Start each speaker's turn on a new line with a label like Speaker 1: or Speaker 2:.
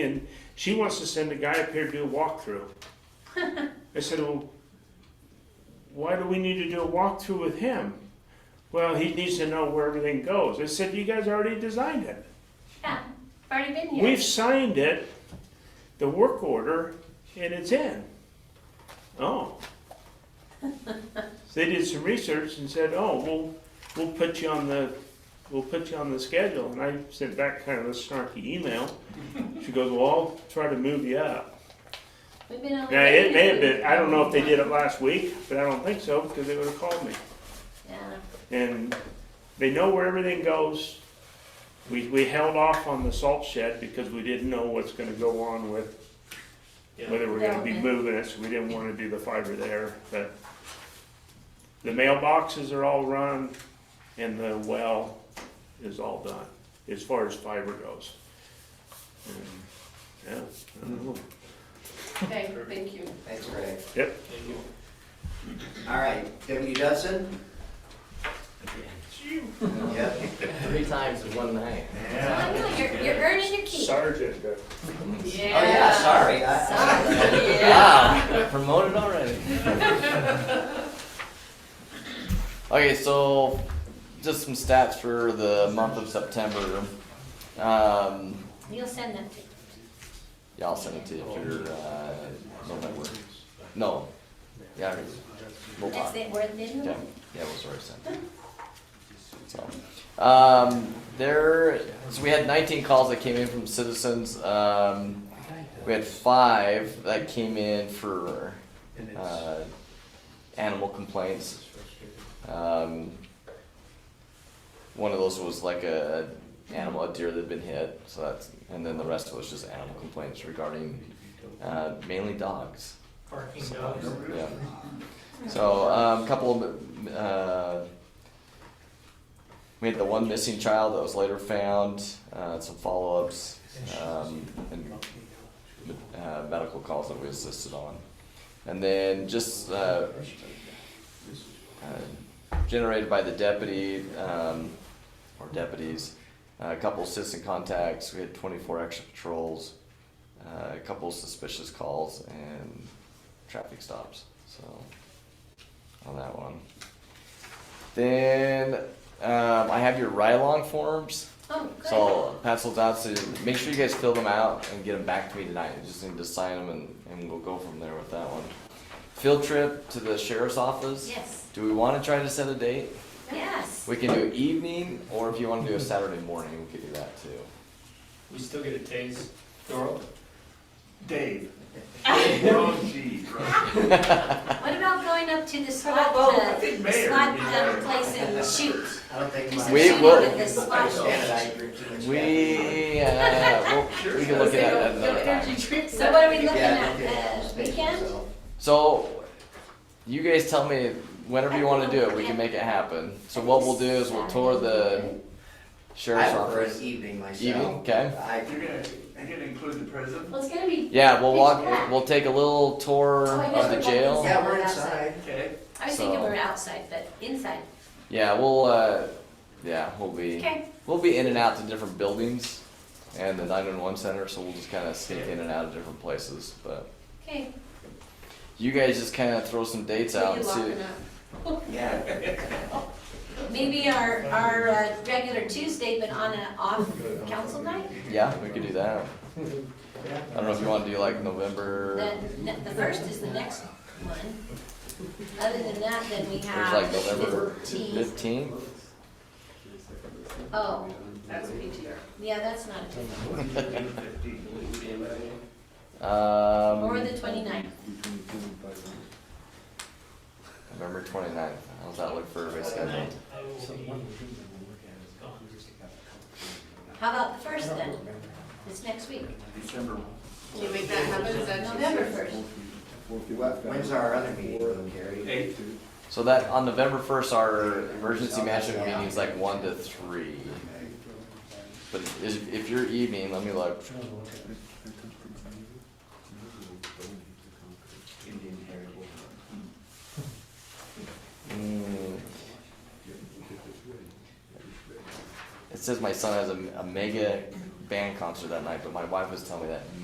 Speaker 1: And she wants to send a guy up here to do a walkthrough. I said, well, why do we need to do a walkthrough with him? Well, he needs to know where everything goes. I said, you guys already designed it.
Speaker 2: Yeah, I've already been here.
Speaker 1: We've signed it, the work order, and it's in. Oh. So They did some research and said, oh, we'll, we'll put you on the, we'll put you on the schedule. And I sent back kind of a snarky email. She goes, well, I'll try to move you up.
Speaker 2: We've been on.
Speaker 1: Now, it may have been, I don't know if they did it last week, but I don't think so, because they would have called me.
Speaker 2: Yeah,
Speaker 1: And they know where everything goes. We, we held off on the salt shed because we didn't know what's gonna go on with, whether we're gonna be
Speaker 2: Development.
Speaker 1: moving it, so we didn't wanna do the fiber there, but the mailboxes are all run and the well is all done, as far as fiber goes. And, Yeah, I don't know.
Speaker 2: okay, thank you.
Speaker 3: Thanks, Greg.
Speaker 1: Yep.
Speaker 3: All right, W. Dudson? Yep. Oh,
Speaker 4: Three times in one night.
Speaker 2: So I know, you're, you're earning your keep.
Speaker 1: Sergeant, uh,
Speaker 3: Oh, yeah, sorry. I- I-
Speaker 2: Sorry, yeah.
Speaker 4: Wow, got promoted already. okay, so just some stats for the month of September. Um,
Speaker 2: You'll send them to me.
Speaker 4: yeah, I'll send it to you for uh, November. No. Yeah, it's- we'll
Speaker 2: That's
Speaker 4: talk.
Speaker 2: it, we're in
Speaker 4: Yeah,
Speaker 2: the.
Speaker 4: yeah, we'll sort of send. So, um, there, so we had nineteen calls that came in from citizens, um, we had five that came in for, uh, animal complaints. Um, one of those was like a animal, a deer that had been hit, so that's, and then the rest was just animal complaints regarding, uh, mainly dogs.
Speaker 5: Parking
Speaker 4: Yeah. So, um, couple of, uh, we had the one missing child that was later found, uh, some follow-ups, um, and, uh, medical calls that we assisted on. And then just, uh, uh, generated by the deputy, um, or deputies, uh, a couple assistant contacts, we had twenty-four extra patrols, uh, a couple suspicious calls, and traffic stops. So on that one. Then um, I have your ride along forms.
Speaker 2: Oh,
Speaker 4: So uh,
Speaker 2: good.
Speaker 4: I'll pass those out to make sure you guys fill them out and get them back to me tonight. You just need to sign them and, and we'll go from there with that one. Field trip to the sheriff's office.
Speaker 2: Yes,
Speaker 4: Do we want to try to set a date?
Speaker 2: yes.
Speaker 4: We can do evening, or if you want to do a Saturday morning, we could do that too.
Speaker 5: We still get a taste. Doral?
Speaker 6: Dave. Oh, gee.
Speaker 2: What about going up to the
Speaker 6: about
Speaker 2: SWAT,
Speaker 6: both?
Speaker 2: uh,
Speaker 6: I think mayor
Speaker 2: SWAT
Speaker 6: would be better.
Speaker 2: uh, place and shoot?
Speaker 3: I don't think.
Speaker 2: Just
Speaker 3: my-
Speaker 4: We
Speaker 2: shoot
Speaker 4: will-
Speaker 2: at the
Speaker 3: I
Speaker 2: SWAT.
Speaker 3: understand that I drink too much. coffee.
Speaker 4: We uh, we'll, we can look at that at another time.
Speaker 2: So what are we looking
Speaker 3: Yeah, I don't think
Speaker 2: at, Uh, the
Speaker 3: I understand
Speaker 2: weekend?
Speaker 3: myself.
Speaker 4: So, you guys tell me whenever you wanna do it, we can make it happen. So what we'll do is we'll tour the
Speaker 3: I
Speaker 4: sheriff's
Speaker 3: prefer an
Speaker 4: office.
Speaker 3: evening myself.
Speaker 4: Evening, okay?
Speaker 3: I,
Speaker 6: You're gonna, you're gonna include the president?
Speaker 2: Well, it's gonna be,
Speaker 4: Yeah, we'll walk, we'll take a little tour
Speaker 2: Oh, I
Speaker 4: of the
Speaker 2: guess we're
Speaker 4: jail.
Speaker 2: going
Speaker 3: yeah, we're inside.
Speaker 6: Okay.
Speaker 2: I was thinking
Speaker 4: So-
Speaker 2: we're outside, but inside.
Speaker 4: Yeah, we'll, uh, yeah, we'll be,
Speaker 2: Okay,
Speaker 4: we'll be in and out to different buildings and the nine-one-one center, so we'll just kinda sneak in and out of different places, but
Speaker 2: okay.
Speaker 4: you guys just kinda throw some dates out and
Speaker 2: Maybe
Speaker 4: see.
Speaker 2: locking
Speaker 3: Yeah.
Speaker 2: up. Maybe our, our uh, regular Tuesday, but on an off council night,
Speaker 4: Yeah, we could do that. I don't know if you wanna do like November.
Speaker 2: the, the first is the next one. Other than that, then we
Speaker 4: There's like
Speaker 2: have
Speaker 4: November
Speaker 2: fifteenth,
Speaker 4: fifteenth.
Speaker 2: oh,
Speaker 5: That's a big
Speaker 2: yeah, that's not a good one,
Speaker 4: Um,
Speaker 2: or the twenty-ninth.
Speaker 4: November 29th. How's that look for everybody's schedule?
Speaker 2: How about the first then? It's next week,
Speaker 6: December.
Speaker 7: Can you make that happen? Is that
Speaker 2: November first.
Speaker 3: When's our other meeting, Gary?
Speaker 6: Eight.
Speaker 4: So that on November first, our emergency management meeting is like one to three. But is, if you're evening, let me look.
Speaker 6: Indian Heritage.
Speaker 4: Mm. It says my son has a, a mega band concert that night, but my wife was telling me that